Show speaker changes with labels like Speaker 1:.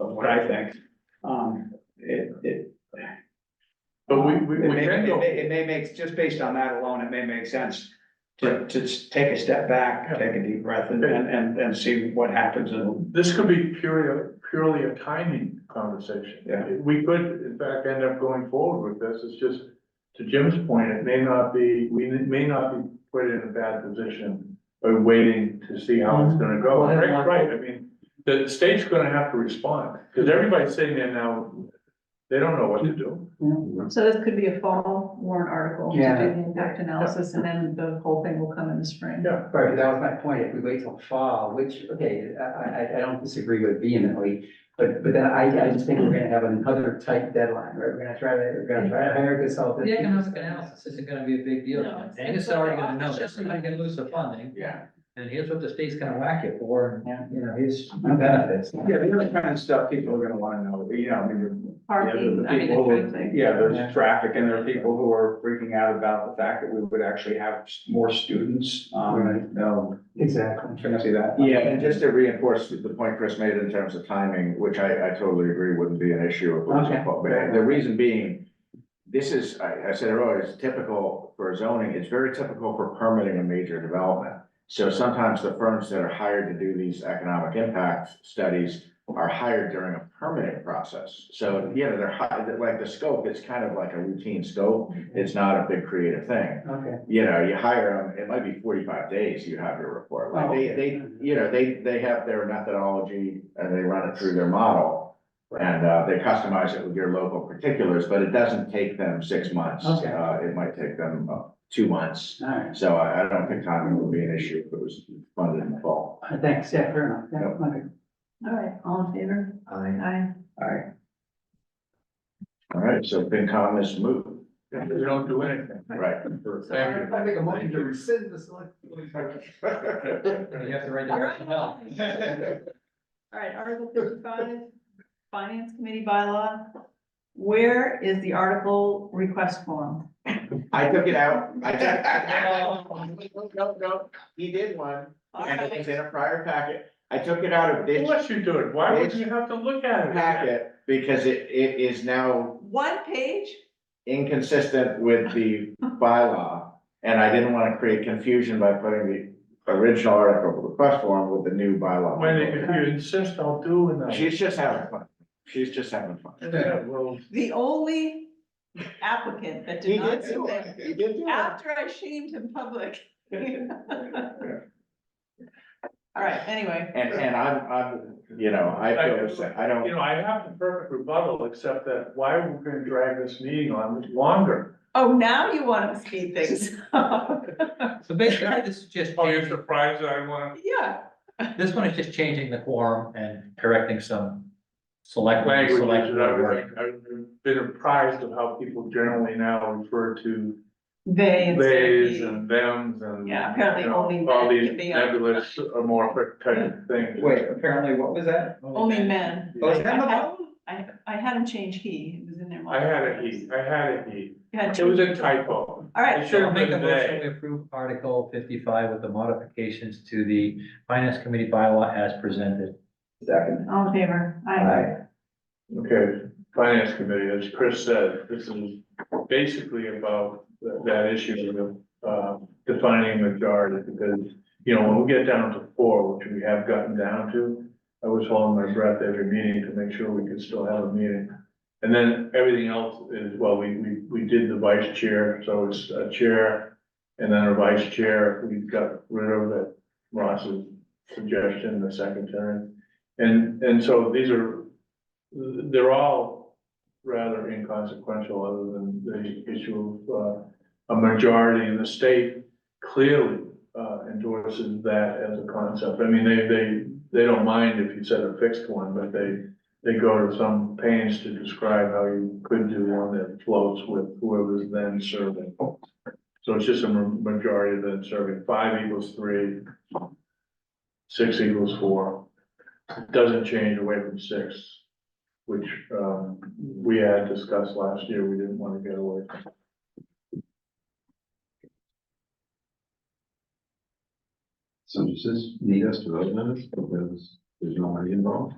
Speaker 1: of what I think. Um, it, it.
Speaker 2: But we, we,
Speaker 1: It
Speaker 2: we
Speaker 1: may,
Speaker 2: can
Speaker 1: it
Speaker 2: go,
Speaker 1: may, it may make, just based on that alone, it may make sense to, to s- take a step back, take a deep breath and, and, and- and see what happens and.
Speaker 2: this could be purely, purely a timing conversation.
Speaker 1: Yeah.
Speaker 2: We could, in fact, end up going forward with this, it's just, to Jim's point, it may not be, we may not be put in a bad position by waiting to see how
Speaker 1: Mm-hmm.
Speaker 2: it's gonna go.
Speaker 3: Well, I don't
Speaker 2: Right,
Speaker 3: want-
Speaker 2: right, I mean, the the state's gonna have to respond, because everybody's sitting there now, they don't know what to do.
Speaker 4: So this could be a fall warrant article to do
Speaker 3: Yeah.
Speaker 4: the impact analysis and then the whole thing will come in the spring.
Speaker 2: Yeah.
Speaker 3: Right, but that was my point, if we wait till fall, which, okay, I, I, I don't disagree with vehemently, but, but then I, I just think we're gonna have another tight deadline, right? We're gonna try to, we're gonna try to hire a consultant.
Speaker 5: The economic analysis isn't gonna be a big deal,
Speaker 4: No,
Speaker 5: and
Speaker 4: it's-
Speaker 5: it's
Speaker 4: it's
Speaker 5: already
Speaker 4: like,
Speaker 5: gonna
Speaker 4: oh,
Speaker 5: know,
Speaker 4: it's
Speaker 5: this.
Speaker 4: just
Speaker 5: you're not gonna lose the funding.
Speaker 2: Yeah.
Speaker 5: And here's what the state's gonna whack you for,
Speaker 3: Yeah.
Speaker 5: and, you know, here's.
Speaker 3: No benefits.
Speaker 1: Yeah, the other kind of stuff people are gonna wanna know, you know, I mean.
Speaker 4: Parking, I mean, that kind of thing.
Speaker 1: Yeah, there's traffic and there are people who are freaking out about the fact that we would actually have s- more students, um,
Speaker 3: Right.
Speaker 1: no.
Speaker 3: Exactly.
Speaker 1: Can I see that?
Speaker 6: Yeah, and just to reinforce the point Chris made in terms of timing, which I, I totally agree wouldn't be an issue. if it was a-
Speaker 3: Okay.
Speaker 6: But the reason being, this is, I, I said earlier, it's typical for zoning, it's very typical for permitting a major development. So sometimes the firms that are hired to do these economic impact studies are hired during a permitting process. So, you know, they're hired, like the scope is kind of like a routine scope, it's not a big creative thing
Speaker 3: Okay.
Speaker 6: you know, you hire them, it might be forty-five days you have your report, like they, they, you know, they, they have their methodology and they run it through their model. And, uh, they customize it with your local particulars, but it doesn't take them six months,
Speaker 3: Okay.
Speaker 6: uh, it might take them uh, two months.
Speaker 3: All right,
Speaker 6: So I, I don't think timing would be an issue if it was funded in the fall.
Speaker 3: All right, thanks, yeah, fair enough, yeah, okay.
Speaker 4: All right, all in favor?
Speaker 5: I.
Speaker 4: Aye.
Speaker 1: Alright,
Speaker 6: All right, so FinCom is moved,
Speaker 2: They don't do anything.
Speaker 6: right?
Speaker 2: Thank you.
Speaker 3: make a motion to rescind this one.
Speaker 5: You have to write
Speaker 4: All
Speaker 5: down.
Speaker 4: right, well. All right, Article fifty-five, Finance Committee bylaw. Where is the article request form?
Speaker 6: I took it out, I took, no, no, no, he did one, and it was
Speaker 4: Okay.
Speaker 6: in a prior packet, I took it out of this
Speaker 2: Unless you do it, why would you have to look at it?
Speaker 6: packet because it, it is now
Speaker 4: One page?
Speaker 6: inconsistent with the bylaw. And I didn't wanna create confusion by putting the original article request form with the new bylaw.
Speaker 2: When they- if you insist, I'll do it.
Speaker 6: She's just having fun, she's just having fun.
Speaker 2: Yeah, well,
Speaker 4: The only applicant that did not submit
Speaker 6: He did do it.
Speaker 4: after I shamed him public. All right, anyway.
Speaker 6: And, and I'm, I'm, you know, I feel the same, I
Speaker 2: you
Speaker 6: don't,
Speaker 2: know, I have the perfect rebuttal, except that why are we gonna drag this meeting on longer?
Speaker 4: Oh, now you want to speed things up.
Speaker 5: So basically, this is just, changing-
Speaker 2: Oh, surprised I want.
Speaker 4: Yeah,
Speaker 5: this one is just changing the quorum and correcting some select.
Speaker 2: Language,
Speaker 5: select
Speaker 2: that
Speaker 5: word.
Speaker 2: I've, I've been apprised of how people generally now refer to
Speaker 4: they. instead of
Speaker 2: theys
Speaker 4: he.
Speaker 2: and thems and.
Speaker 4: Yeah, apparently
Speaker 2: you know,
Speaker 4: only
Speaker 2: All
Speaker 4: men
Speaker 2: these
Speaker 4: can be on-
Speaker 2: nebulous amorphic type of things.
Speaker 1: wait, apparently, what was that?
Speaker 4: Only men.
Speaker 1: Oh, is that
Speaker 4: I- I-
Speaker 1: about?
Speaker 4: I, I had him change he, it was in there.
Speaker 2: I had a he, I had a he,
Speaker 4: You had
Speaker 2: it was
Speaker 4: two.
Speaker 2: a typo.
Speaker 4: All right,
Speaker 2: It should
Speaker 5: So I'll
Speaker 2: have
Speaker 5: make a
Speaker 2: been
Speaker 5: motion,
Speaker 2: they.
Speaker 5: we approve Article fifty-five with the modifications to the Finance Committee bylaw as presented.
Speaker 1: Second.
Speaker 4: all in favor? Aye.
Speaker 2: Okay, finance committee, as Chris said, this is basically about th- that issue of uh defining majority because. You know, when we get down to four, which we have gotten down to, I was holding my breath every meeting to make sure we could still have a meeting. And then everything else is, well, we we we did the vice chair, so it's a chair and then a vice chair. We got rid of it, Ross's suggestion, the secretary. And and so these are they're all rather inconsequential, other than the issue of, uh, a majority in the state clearly, uh, endorses that as a concept. I mean, they, they, they don't mind if you said a fixed one, but they, they go to some pains to describe how you could do one that floats with whoever's then serving. So it's just a ma- majority then serving, five equals three, six equals four. Doesn't change away from six which, um, we had discussed last year, we didn't wanna get away from.
Speaker 7: So does this need us to vote on this, because there's no money involved?